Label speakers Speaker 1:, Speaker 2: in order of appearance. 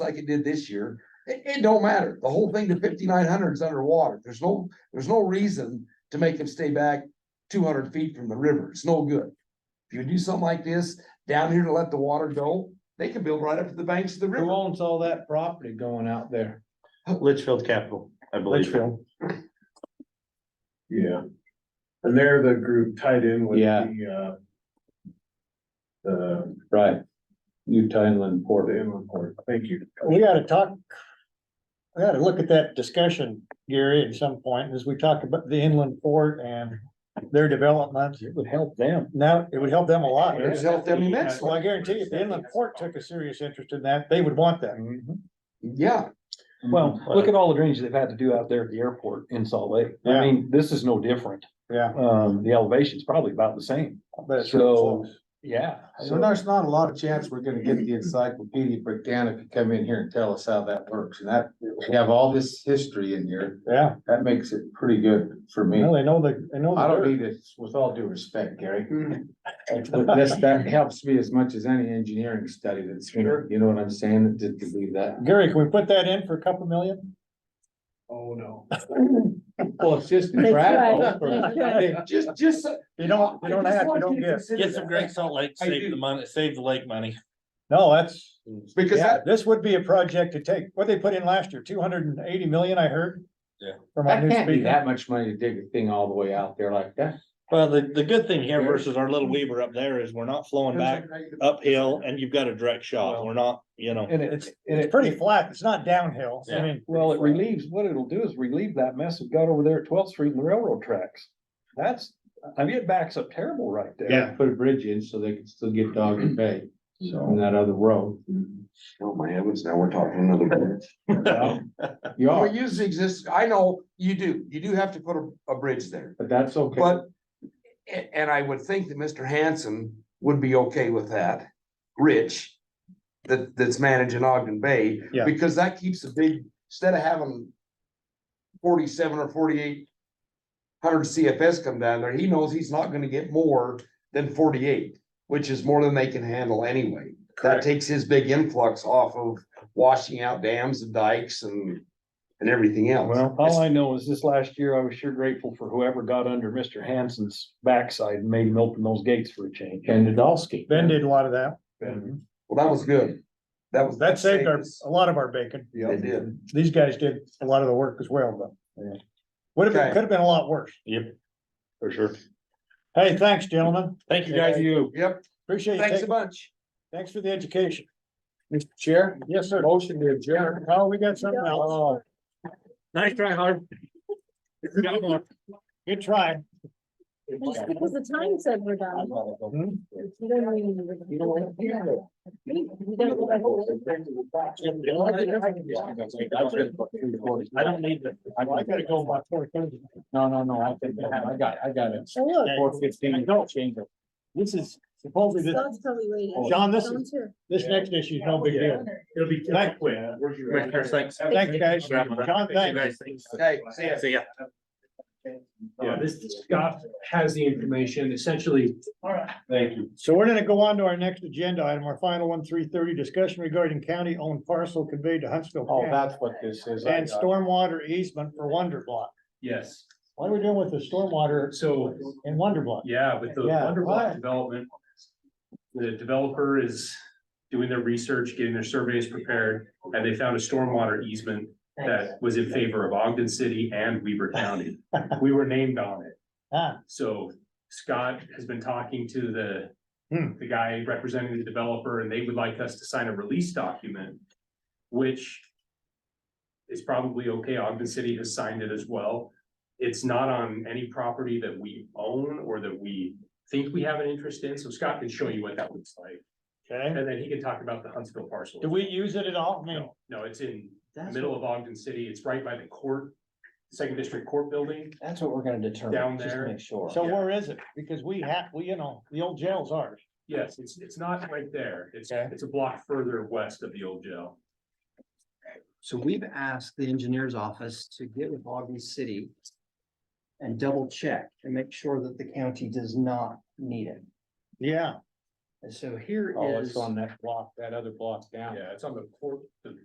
Speaker 1: like it did this year, it, it don't matter. The whole thing to fifty-nine hundred is underwater. There's no, there's no reason to make them stay back two hundred feet from the river. It's no good. If you do something like this, down here to let the water go, they can build right up to the banks of the
Speaker 2: Who
Speaker 1: river.
Speaker 2: owns all that property going out there?
Speaker 3: Litchfield Capital, I believe.
Speaker 2: Litchfield.
Speaker 4: Yeah. And they're the group tied in with
Speaker 2: Yeah.
Speaker 4: the, uh. The,
Speaker 2: Right. Utah Inland
Speaker 4: the
Speaker 2: Port.
Speaker 4: inland port, thank you.
Speaker 5: We gotta talk. We gotta look at that discussion, Gary, at some point, as we talk about the inland port and their development.
Speaker 2: It would help them.
Speaker 5: Now, it would help them a lot.
Speaker 1: It would help them immensely.
Speaker 5: Well, I guarantee you, if the inland port took a serious interest in that, they would want that.
Speaker 2: Mm-hmm.
Speaker 1: Yeah,
Speaker 6: Well,
Speaker 5: Mm-hmm.
Speaker 6: look at all the drainage they've had to do out there at the airport in Salt Lake. I
Speaker 5: Yeah.
Speaker 6: mean, this is no different.
Speaker 5: Yeah.
Speaker 6: Um, the elevation's probably about the same.
Speaker 5: but it's
Speaker 6: So-
Speaker 5: close.
Speaker 6: Yeah.
Speaker 2: So there's not a lot of chance we're gonna get the encyclopedia Britannica to come in here and tell us how that works. And that, we have all this history in here.
Speaker 5: Yeah,
Speaker 2: That makes it pretty good for me.
Speaker 5: well, they know the, they know. the
Speaker 2: I don't
Speaker 5: dirt.
Speaker 2: need it, with all due respect, Gary. But This, that helps me as much as any engineering study that's, you know what I'm saying, to to do that.
Speaker 5: Gary, can we put that in for a couple million?
Speaker 4: Oh, no.
Speaker 2: Well, it's just
Speaker 7: That's
Speaker 2: practical.
Speaker 7: right. That's right.
Speaker 1: just, just.
Speaker 5: You don't, you don't have, you don't get.
Speaker 3: Get some Great Salt Lake,
Speaker 1: I do.
Speaker 3: save the money, save the lake money.
Speaker 5: No, that's,
Speaker 1: Because
Speaker 5: yeah,
Speaker 1: that,
Speaker 5: this would be a project to take. What they put in last year, two hundred and eighty million, I heard.
Speaker 3: Yeah.
Speaker 5: From our
Speaker 2: That
Speaker 5: new
Speaker 2: can't be
Speaker 5: speaker.
Speaker 2: that much money to dig a thing all the way out there like that.
Speaker 3: Well, the, the good thing here versus our little Weaver up there is we're not flowing back uphill and you've got a direct shot. We're not, you know.
Speaker 6: And
Speaker 5: It's,
Speaker 6: it's, and
Speaker 5: it's
Speaker 6: it,
Speaker 5: pretty flat. It's not downhill. I
Speaker 3: Yeah.
Speaker 5: mean.
Speaker 6: well, it
Speaker 5: pretty flat.
Speaker 6: relieves, what it'll do is relieve that mess that got over there at Twelfth Street and the railroad tracks. That's, I mean, it backs up terrible right there.
Speaker 3: Yeah.
Speaker 2: Put a bridge in so they can still get Dogger Bay on that other road.
Speaker 1: oh my heavens, now we're talking another. bridge.
Speaker 2: You
Speaker 1: Well,
Speaker 2: are,
Speaker 1: it usually exists, I know, you do, you do have to put a, a bridge there,
Speaker 2: but that's okay.
Speaker 1: but. And, and I would think that Mr. Hanson would be okay with that, Rich, that, that's managing Ogden Bay.
Speaker 5: Yeah.
Speaker 1: Because that keeps a big, instead of having forty-seven or forty-eight hundred CFS come down there, he knows he's not gonna get more than forty-eight, which is more than they can handle anyway. That
Speaker 5: Correct.
Speaker 1: takes his big influx off of washing out dams and dikes and, and everything else.
Speaker 6: Well, all I know is this last year, I was sure grateful for whoever got under Mr. Hanson's backside and made him open those gates for a change.
Speaker 2: And Nadolski.
Speaker 5: Ben did a lot of that.
Speaker 1: Well, that was good. That was.
Speaker 5: That saved our,
Speaker 1: us.
Speaker 5: a lot of our bacon.
Speaker 1: It did.
Speaker 5: These guys did a lot of the work as well, but.
Speaker 6: Yeah.
Speaker 5: Would have been,
Speaker 1: Okay.
Speaker 5: could have been a lot worse.
Speaker 3: Yep. For sure.
Speaker 5: Hey, thanks, gentlemen.
Speaker 3: Thank you guys.
Speaker 2: you.
Speaker 1: Yep,
Speaker 5: Appreciate you
Speaker 1: thanks a
Speaker 5: taking,
Speaker 1: bunch.
Speaker 5: thanks for the education.
Speaker 2: Mr. Chair,
Speaker 5: Yes, sir.
Speaker 2: motion to adjourn.
Speaker 5: Oh, we got something else.
Speaker 3: Nice try, Harv. Got more.
Speaker 5: Good try.
Speaker 7: Just because the time said we're done. We don't really need to- We don't-
Speaker 3: I don't need to.
Speaker 2: I gotta go by four thirty. No, no, no, I think, I got, I got it.
Speaker 7: Oh, look,
Speaker 2: Four fifteen, change it. This is supposedly this.
Speaker 7: Scott's probably waiting.
Speaker 5: John, this is-
Speaker 7: Someone's here.
Speaker 5: This next issue is no big deal.
Speaker 4: It'll be. uh,
Speaker 5: Thank-
Speaker 3: Commissioner, thanks.
Speaker 5: Thanks, guys. John,
Speaker 3: You
Speaker 5: thanks.
Speaker 3: guys, thanks.
Speaker 1: Okay, see ya.
Speaker 3: See ya.
Speaker 4: Yeah, this, Scott has the information essentially. All right. Thank you.
Speaker 5: So we're gonna go on to our next agenda item, our final one, three thirty, discussion regarding county owned parcel conveyed to Huntsville
Speaker 2: Oh,
Speaker 5: County
Speaker 2: that's what this is. I
Speaker 5: and
Speaker 2: got it.
Speaker 5: stormwater easement for Wonder Block.
Speaker 4: Yes,
Speaker 5: What are we doing with the stormwater
Speaker 4: so,
Speaker 5: in Wonder Block?
Speaker 4: yeah, with the
Speaker 5: Yeah,
Speaker 4: Wonder
Speaker 5: why?
Speaker 4: Block development. The developer is doing their research, getting their surveys prepared, and they found a stormwater easement that was in favor of Ogden City and Weaver County. We were named on it.
Speaker 5: Ah,
Speaker 4: So Scott has been talking to the,
Speaker 5: Hmm.
Speaker 4: the guy representing the developer, and they would like us to sign a release document, which is probably okay. Ogden City has signed it as well. It's not on any property that we own or that we think we have an interest in, so Scott can show you what that looks like.
Speaker 5: okay.
Speaker 4: And then he can talk about the Huntsville parcel.
Speaker 5: Do we use it at all? I mean,
Speaker 4: No, no, it's in the middle of Ogden City. It's right by the court, Second District Court Building.
Speaker 8: That's what we're gonna
Speaker 4: Down
Speaker 8: determine, just
Speaker 4: there.
Speaker 8: to make sure.
Speaker 5: so
Speaker 4: yeah.
Speaker 5: where is it? Because we have, we, you know, the old jail's ours.
Speaker 4: Yes, it's, it's not right there. It's,
Speaker 5: Okay.
Speaker 4: it's a block further west of the old jail.
Speaker 8: So we've asked the engineer's office to get with Ogden City and double check and make sure that the county does not need it.
Speaker 5: Yeah.
Speaker 8: And so here
Speaker 2: Oh,
Speaker 8: is, Oh,
Speaker 2: it's on that block, that other block down.
Speaker 4: Yeah, it's on the court, the